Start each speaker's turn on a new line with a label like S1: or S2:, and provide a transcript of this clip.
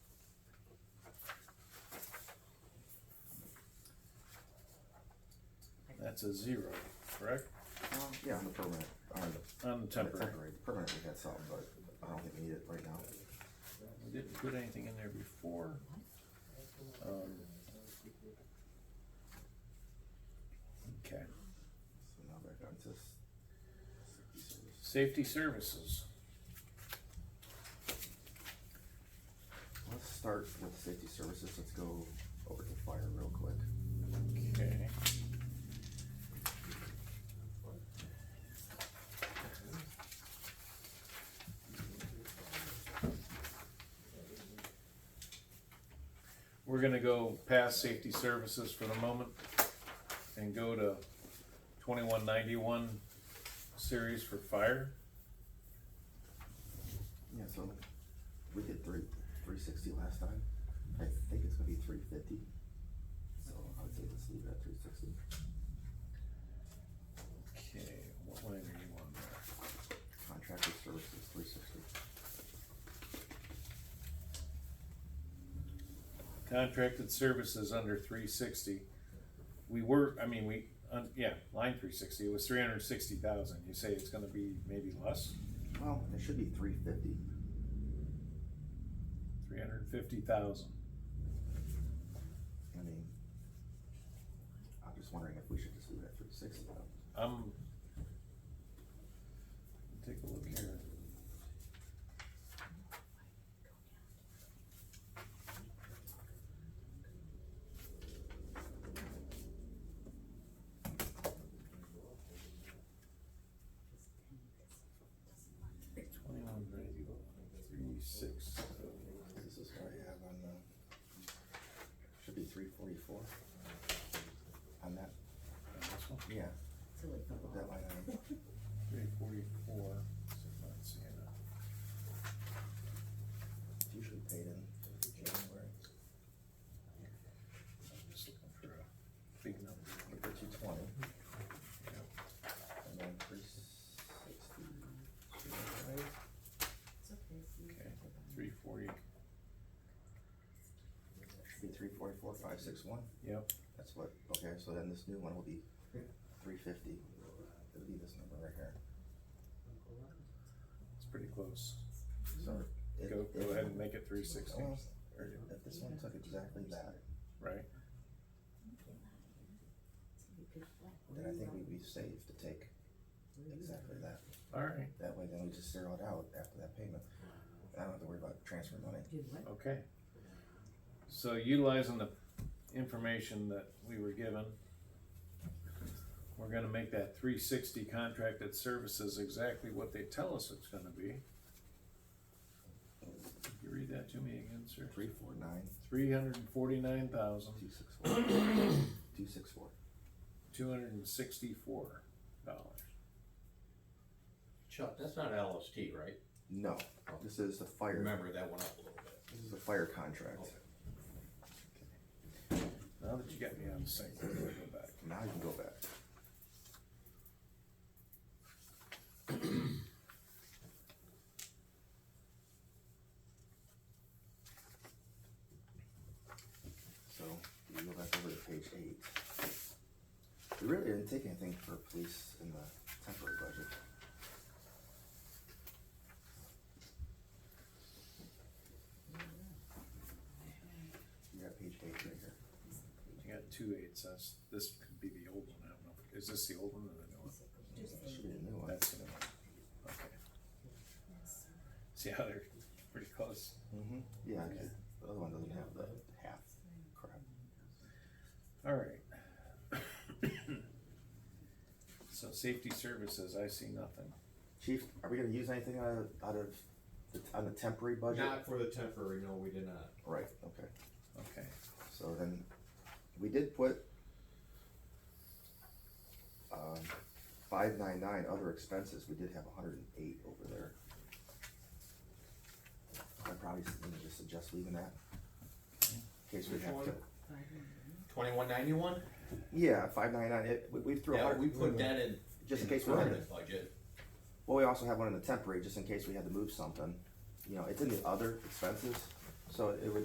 S1: That's a zero, correct?
S2: Uh, Yeah, on the permanent, on the.
S1: On the temporary.
S2: Permanent, we got some, but I don't think we need it right now.
S1: We didn't put anything in there before. Um, Okay,
S2: So now back on to. s- safety service.
S1: safety services,
S2: Let's start with safety services, let's go over to fire real quick.
S1: okay. We're gonna go past safety services for the moment and go to twenty-one ninety-one series for fire.
S2: Yeah, so we did three, three sixty last time, I think it's gonna be three fifty. So I would say let's leave it at three sixty.
S1: Okay, what line are you on there?
S2: Contractor services, three sixty.
S1: Contracted services under three sixty. We were, I mean, we, uh, yeah, line three sixty, it was three hundred and sixty thousand. You say it's gonna be maybe less?
S2: Well, it should be three fifty.
S1: Three hundred and fifty thousand.
S2: I mean, I'm just wondering if we should just leave it at three sixty though.
S1: I'm. Take a look here. Twenty-one ninety-one, three six.
S2: This is what I have on the, should be three forty-four. On that,
S1: This one,
S2: yeah,
S3: So like the
S2: that line item,
S1: three forty-four, so I'm not seeing it.
S2: it's usually paid in January.
S1: I'm just looking for a big number.
S2: We put two twenty,
S1: Yeah.
S2: and then three sixty.
S3: It's okay, see.
S1: Okay, three forty,
S2: Should be three forty-four, five six one,
S1: yep,
S2: that's what, okay, so then this new one will be three fifty. It'll be this number right here.
S1: it's pretty close.
S2: So. if-
S1: Go,
S2: if-
S1: go ahead and make it three sixty,
S2: Well, If this one took exactly that,
S1: right?
S2: then I think we'd be safe to take exactly that.
S1: All right,
S2: That way, then we just zero it out after that payment. I don't have to worry about transferring money.
S3: Do what?
S1: okay. So utilizing the information that we were given, we're gonna make that three sixty contracted services exactly what they tell us it's gonna be. Can You read that to me again, sir?
S2: Three, four, nine,
S1: Three hundred and forty-nine thousand,
S2: two, six, four. Two, six, four.
S1: two hundred and sixty-four dollars.
S4: Chuck, that's not LST, right?
S2: No, this is the fire,
S4: Remember, that went up a little bit.
S2: this is the fire contract.
S1: Now that you got me on sync, we're gonna go back.
S2: Now you can go back. So, you go back over to page eight. We really didn't take anything for police in the temporary budget. You got page eight right here.
S1: You got two eights, that's, this could be the old one, I don't know, is this the old one or the new one?
S2: Should be a new one.
S1: That's the new one, okay. See how they're pretty close?
S2: Mm-hmm, yeah, 'cause the other one doesn't have the half crap.
S1: Alright. So safety services, I see nothing.
S2: Chief, are we gonna use anything out of, out of, the- on the temporary budget?
S4: Not for the temporary, no, we did not.
S2: Right, okay,
S1: Okay,
S2: so then, we did put um, five nine nine, other expenses, we did have hundred and eight over there. I probably s- would just suggest leaving that, in case we
S4: Which
S2: have to.
S4: one? Twenty-one ninety-one?
S2: Yeah, five nine nine, it, we, we threw a
S4: Yeah,
S2: hundred.
S4: we put that in.
S2: Just in
S4: the
S2: case we're in
S4: permanent Budget.
S2: Well, we also have one in the temporary, just in case we had to move something. You know, it's in the other expenses, so it would